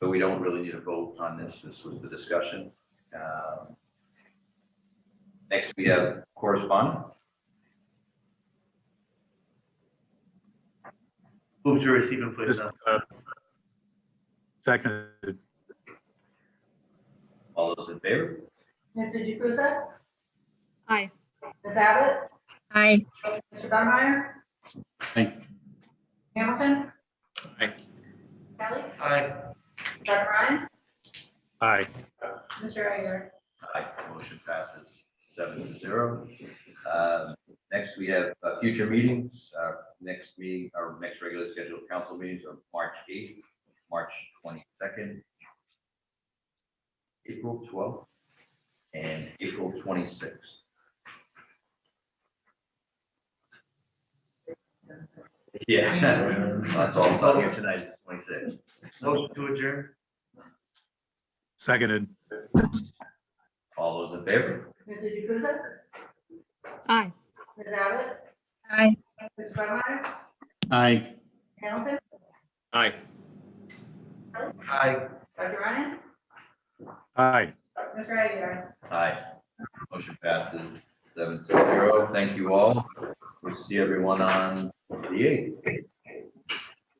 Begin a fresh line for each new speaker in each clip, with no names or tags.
but we don't really need a vote on this. This was the discussion. Um, Next, we have correspondence.
Move to receive and place
This,
on.
uh, Seconded,
All those in favor?
Mr. Jukusa?
Aye.
Ms. Abbott?
Aye.
Mr. Bummeyer?
Aye.
Hamilton?
Aye.
Kelly?
Aye.
Dr. Ryan?
aye.
Mr. Aguilar?
Aye, motion passes seven to zero. Um, Next, we have uh, future meetings. Our Next meeting, our next regular scheduled council meetings are March 8th, March 22nd, April 12th, and April 26th. Yeah, that's all, that's all here tonight, is 26.
Motion to adjourn.
Seconded,
All those in favor?
Mr. Jukusa?
Aye.
Ms. Abbott?
Aye.
Mr. Bummeyer?
Aye.
Hamilton?
Aye.
Aye.
Dr. Ryan?
aye.
Mr. Aguilar?
Aye. Motion passes seven to zero. Thank you all. We'll see everyone on the eighth.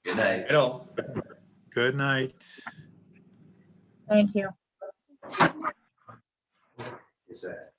Good night.
At all.
Good night.
Thank you.
Yes, sir.